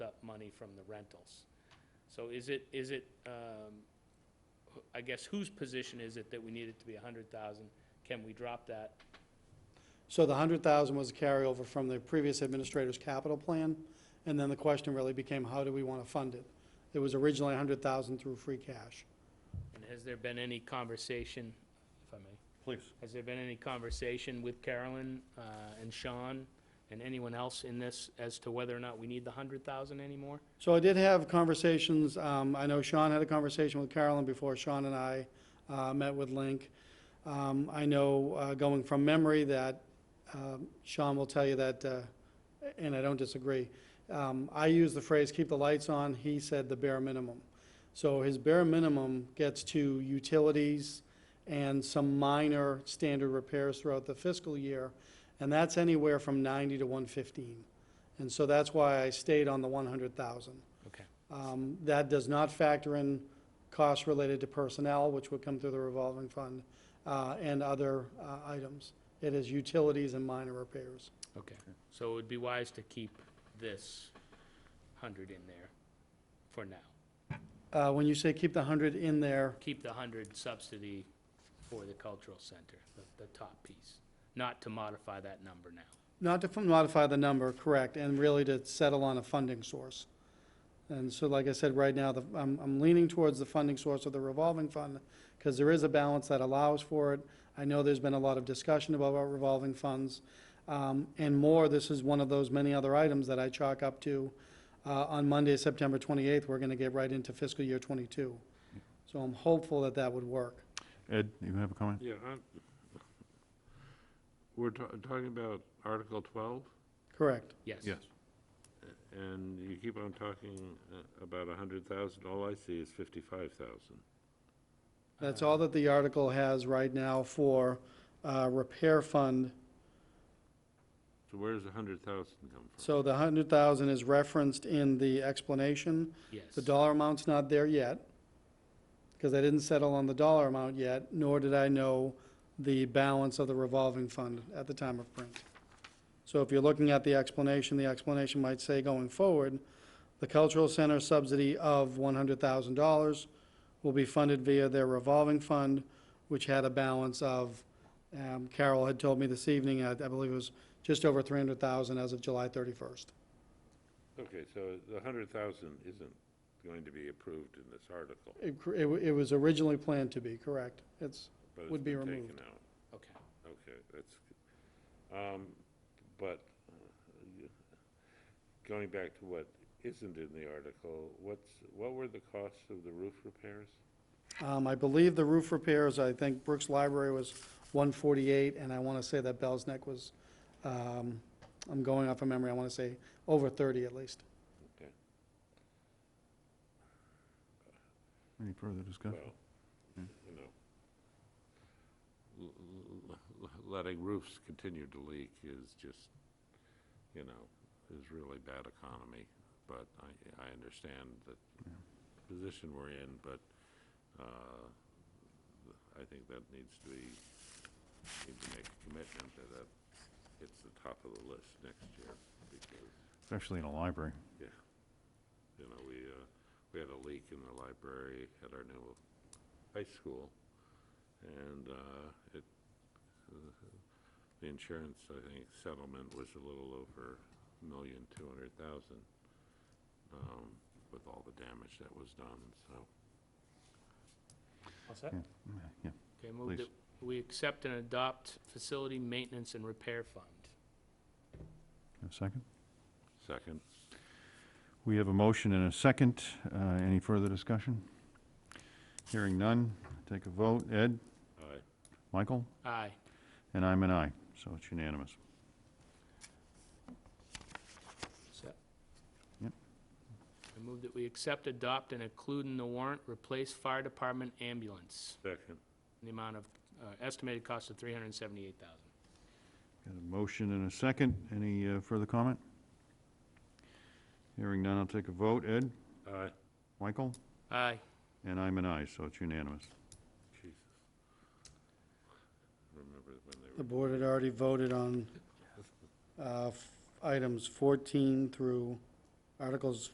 money from the rentals. So is it, is it, um, wh- I guess whose position is it that we need it to be a hundred thousand? Can we drop that? So the hundred thousand was a carryover from the previous administrator's capital plan, and then the question really became, how do we want to fund it? It was originally a hundred thousand through free cash. And has there been any conversation, if I may, Please. has there been any conversation with Carolyn, uh, and Sean and anyone else in this as to whether or not we need the hundred thousand anymore? So I did have conversations, um, I know Sean had a conversation with Carolyn before Sean and I, uh, met with Link. Um, I know, uh, going from memory that, um, Sean will tell you that, uh, and I don't disagree. Um, I use the phrase, keep the lights on, he said the bare minimum. So his bare minimum gets to utilities and some minor standard repairs throughout the fiscal year, and that's anywhere from ninety to one fifteen. And so that's why I stayed on the one hundred thousand. Okay. Um, That does not factor in costs related to personnel, which would come through the revolving fund, uh, and other uh, items. It is utilities and minor repairs. Okay, so it would be wise to keep this hundred in there for now. Uh, When you say keep the hundred in there, Keep the hundred subsidy for the cultural center, the, the top piece, not to modify that number now. not to modify the number, correct, and really to settle on a funding source. And so, like I said, right now, the- I'm I'm leaning towards the funding source of the revolving fund, because there is a balance that allows for it. I know there's been a lot of discussion about our revolving funds. um, And more, this is one of those many other items that I chalk up to. uh, On Monday, September 28th, we're going to get right into fiscal year '22. So I'm hopeful that that would work. Ed, you have a comment? Yeah, I'm, we're ta- talking about Article 12, Correct. Yes. and you keep on talking uh, about 100,000. All I see is 55,000. That's all that the article has right now for uh, repair fund. So where does 100,000 come from? So the hundred thousand is referenced in the explanation. Yes. The dollar amount's not there yet, because I didn't settle on the dollar amount yet, nor did I know the balance of the revolving fund at the time of print. So if you're looking at the explanation, the explanation might say going forward, the cultural center subsidy of one hundred thousand dollars will be funded via their revolving fund, which had a balance of, um, Carol had told me this evening, I, I believe it was just over three hundred thousand as of July thirty-first. Okay, so the 100,000 isn't going to be approved in this article, It, cr- it, wa- it was originally planned to be, correct? It's, but it's Would be been taken removed. out. Okay. Okay, that's, good. um, but uh, you- going back to what isn't in the article, what's, what were the costs of the roof repairs? um, I believe the roof repairs, I think Brooks Library was one forty-eight, and I wanna say that Bell's Neck was, um, I'm going off of memory, I wanna say over thirty at least. Any further discussion? Well, you know, l- l- l- letting roofs continue to leak is just, you know, is really bad economy. But I, I understand the position we're in, but uh, I think that needs to be, need to make a commitment that that it's the top of the list next year because, Especially in a library. yeah, you know, we, uh, we had a leak in the library at our new high school, and uh, it, uh, the insurance, I think, settlement was a little over a million, two hundred thousand, um, with all the damage that was done, so. All set? Yeah, Mm, yeah. Okay, move Please. that we accept and adopt facility maintenance and repair fund. Have A second? Second. We have a motion and a second. Uh, Any further discussion? Hearing none, take a vote. Ed, Aye. Michael, Aye. and I'm an aye, so it's unanimous. Set. Yep. I move that we accept, adopt, and include in the warrant, replace fire department ambulance, Second. in the amount of, uh, estimated cost of three hundred and seventy-eight thousand. Got a motion and a second. Any uh, further comment? Hearing none, I'll take a vote. Ed, Aye. Michael, Aye. and I'm an aye, so it's unanimous. Jesus. Remember when they The were, board had already voted on, uh, f- items fourteen through, articles